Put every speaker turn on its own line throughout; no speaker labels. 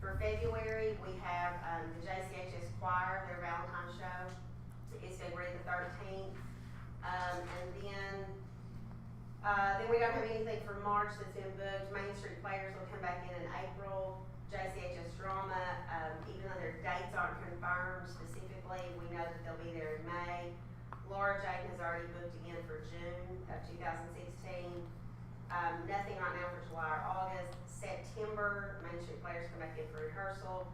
for February, we have, um, the JCHS Choir, their Valentine show. It's February the thirteenth. Um, and then, uh, then we don't have anything for March that's in booked. Main Street Players will come back in in April. JCHS Drama, um, even though their dates aren't confirmed specifically, we know that they'll be there in May. Laura Jane has already booked again for June of two thousand sixteen. Um, nothing right now for July or August. September, Main Street Players come back in for rehearsal.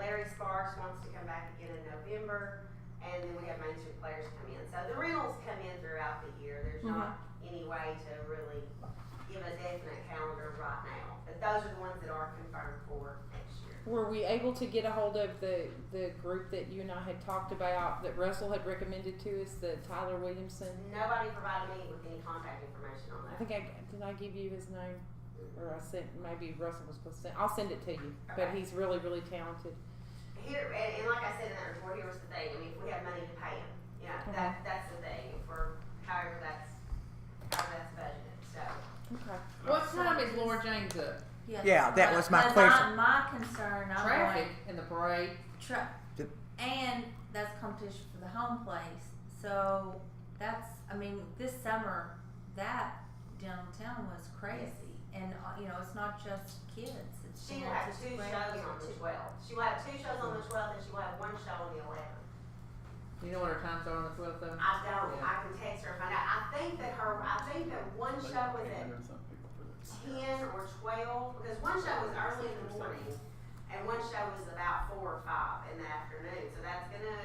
Larry Sparks wants to come back again in November, and then we have Main Street Players come in. So the rentals come in throughout the year. There's not any way to really give a definite calendar right now. But those are the ones that are confirmed for next year.
Were we able to get a hold of the, the group that you and I had talked about that Russell had recommended to us, the Tyler Williamson?
Nobody provided me with any contact information on that.
I think I did I give you his name, or I sent maybe Russell was supposed to send. I'll send it to you, but he's really really talented.
Here, and, and like I said in that report, here was the thing, I mean, if we have money to pay them, you know, that, that's the thing, for however that's, however that's budgeted, so.
Okay.
What time is Laura Jane's up?
Yeah, that was my
but
question.
My, my concern, I'm
Traffic in the parade.
Like, tra-
Yep.
and that's competition for the home place. So that's, I mean, this summer, that downtown was crazy. And, uh, you know, it's not just kids. It's
She
you
will
know,
have
just
two
grand-
shows on the twelfth, she will have two shows on the twelfth, and she will have one show on the eleventh.
You know what her times are on the twelfth though?
I don't, I can text her and find out, I think that her, I think that one show was at ten or twelve, because one show was early in the morning, and one show was about four or five in the afternoon, so that's gonna,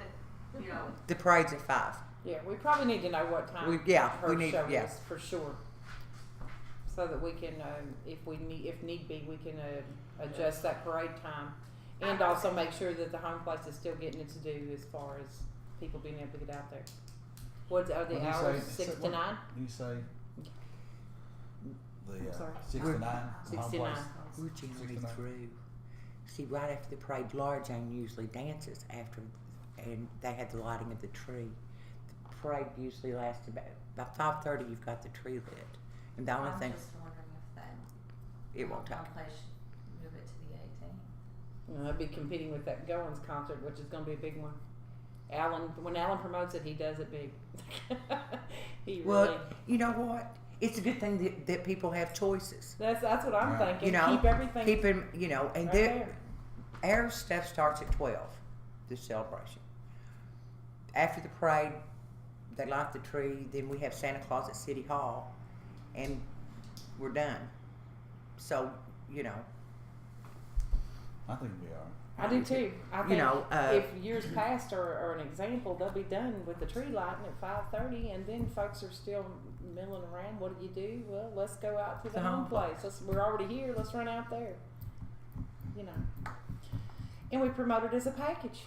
you know,
The parade's at five.
Yeah, we probably need to know what time.
We- yeah,
her
we need-
show
yeah.
is for sure, so that we can, um, if we need, if need be, we can uh, adjust that parade time, and also make sure that the home place is still getting its due as far as people being able to get out there. What are the
What'd you
hours?
say?
Six to
What-
nine.
You say the
I'm
uh,
sorry.
sixty-nine.
Six to nine.
We're generally
69.
through. See, right after the parade, Laura Jane usually dances after, and they had the lighting of the tree. The parade usually lasts about by five thirty. You've got the tree lit, and the only
I'm
thing
just wondering if that
it won't take.
home place should move it to the 18th.
You know, I'd be competing with that Goins concert, which is going to be a big one. Alan, when Alan promotes it, he does it big. he
Well,
really.
You know what? It's a good thing that, that people have choices.
That's that's what I'm
Yeah.
thinking.
You know,
keep everything
Keep them, you know, and
right
they're.
there.
Our stuff starts at 12, the celebration. After the parade, they light the tree, then we have Santa Claus at City Hall, and we're done. So, you know,
I think we are.
I do too. I think
you know, uh,
if years past are, are an example, they'll be done with the tree lighting at five thirty, and then folks are still milling around. What do you do? Well, let's go out to the,
The
home
home
place. Let's, we're already here. Let's run out there. You know, and we promote it as a package.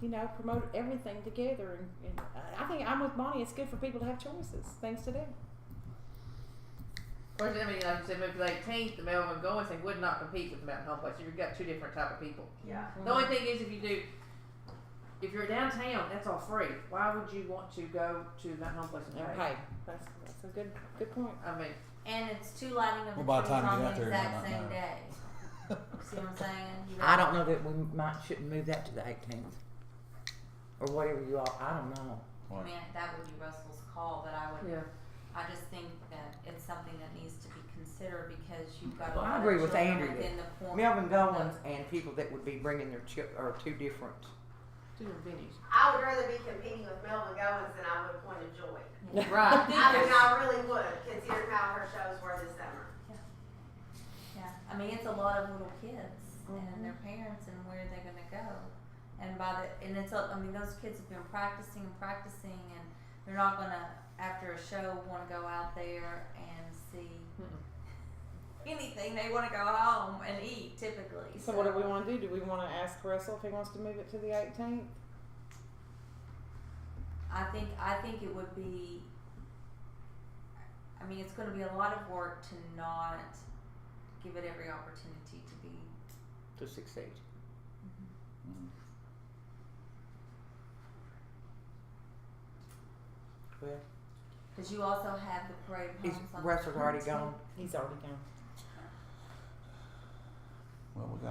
You know, promote everything together, and, and I- I think I'm with Bonnie. It's good for people to have choices, things to do.
Of course, I mean, like you said, maybe the eighteenth, the Melvin Goins, they would not compete with the Mountain Home Place. You've got two different type of people.
yeah.
The only thing is, if you do, if you're downtown, that's all free. Why would you want to go to Mountain Home Place and pay?
Okay, that's, that's a good good point.
I mean,
And it's two lighting of the
Well, by the
trees
time you
on
get
the
out there, you
exact
might
same
know.
day. See what I'm saying? You
I don't know that we might shouldn't move that to the 18th or whatever you all. I don't know.
I mean, that would be Russell's call, but I would.
yeah.
I just think that it's something that needs to be considered because you've got. a
Well,
lot
I
of
agree with
children
Andrea.
Within the point.
Melvin Goins and people that would be bringing their chip are two different.
Two different venues.
I would rather be competing with Melvin Goins than I would Point of Joy.
Right.
I mean, I really would, considering how her shows were this summer.
Yeah, I mean, it's a lot of little kids
Mm-hmm.
and their parents and where they're gonna go. And by the, and it's, a- I mean, those kids have been practicing and practicing and they're not gonna, after a show, wanna go out there and see anything. They wanna go home and eat typically,
So what do we want to do? Do we want to ask Russell if he wants to move it to the 18th?
I think I think it would be. I mean, it's going to be a lot of work to not give it every opportunity to be.
To succeed.
Mhm.
Well,
Because you also have the parade of
is
homes on the
Russell's already
17th.
gone?
He's already gone.
Well, we got